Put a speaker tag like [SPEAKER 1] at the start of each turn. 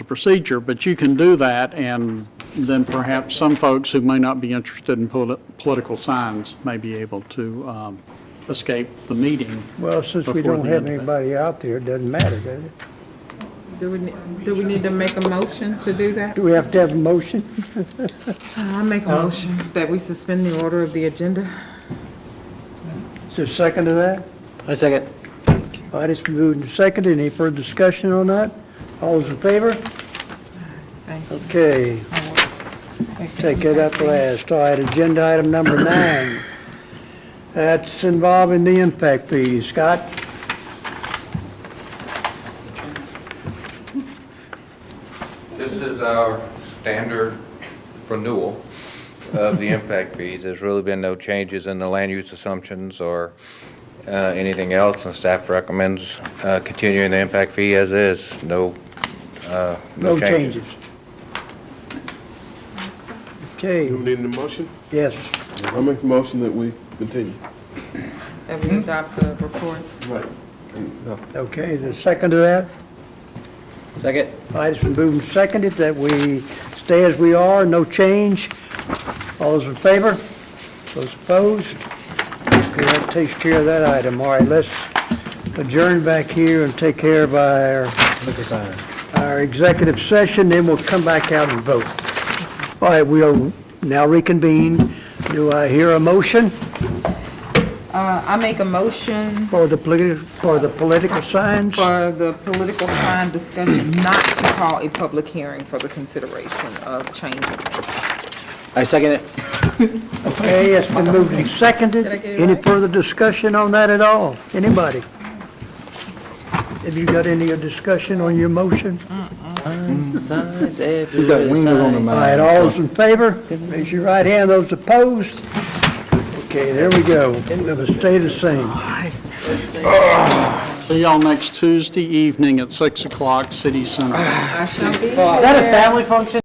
[SPEAKER 1] procedure, but you can do that, and then perhaps some folks who may not be interested in poli- political signs may be able to um, escape the meeting.
[SPEAKER 2] Well, since we
[SPEAKER 1] Before
[SPEAKER 2] don't
[SPEAKER 1] the
[SPEAKER 2] have
[SPEAKER 1] end of it.
[SPEAKER 2] anybody out there, it doesn't matter, does it?
[SPEAKER 3] Do we, ne- do we need to make a motion to do that?
[SPEAKER 2] Do we have to have a motion?
[SPEAKER 3] I make a motion that we suspend the order of the agenda.
[SPEAKER 2] Is there a second to that?
[SPEAKER 4] I second.
[SPEAKER 2] All right, it's been moved and seconded. Any further discussion on that? All those in favor?
[SPEAKER 3] Thank you.
[SPEAKER 2] Okay, take it up last. All right, agenda item number nine. That's involving the impact fees. Scott?
[SPEAKER 5] This is our standard renewal of the impact fees. There's really been no changes in the land use assumptions or uh, anything else, and staff recommends uh, continuing the impact fee as is. No, uh, no changes.
[SPEAKER 2] Okay,
[SPEAKER 6] You need a motion?
[SPEAKER 2] yes.
[SPEAKER 6] I make the motion that we continue.
[SPEAKER 3] That we adopt the report.
[SPEAKER 6] Right.
[SPEAKER 2] Okay, is there a second to that?
[SPEAKER 4] Second.
[SPEAKER 2] All right, it's been moved and seconded that we stay as we are, no change. All those in favor? Those opposed? Okay, that takes care of that item. All right, let's adjourn back here and take care of our
[SPEAKER 4] Lucas, aye.
[SPEAKER 2] our executive session, then we'll come back out and vote. All right, we are now reconvened. Do I hear a motion
[SPEAKER 3] Uh, I make a motion
[SPEAKER 2] for the political, for the political signs?
[SPEAKER 3] for the political sign discussion not to call a public hearing for the consideration of changing.
[SPEAKER 4] I second it.
[SPEAKER 2] Okay, it's been moved and seconded.
[SPEAKER 3] Did I get it
[SPEAKER 2] Any
[SPEAKER 3] right?
[SPEAKER 2] further discussion on that at all? Anybody? Have you got any discussion on your motion?
[SPEAKER 4] Signs everywhere.
[SPEAKER 7] wings on the
[SPEAKER 4] signs.
[SPEAKER 2] All right, all those in favor, raise your right hand. Those opposed? Okay, there we go. It'll stay the same.
[SPEAKER 1] See y'all next Tuesday evening at 6 o'clock, City Center.
[SPEAKER 3] I shall be
[SPEAKER 4] Is that a family function?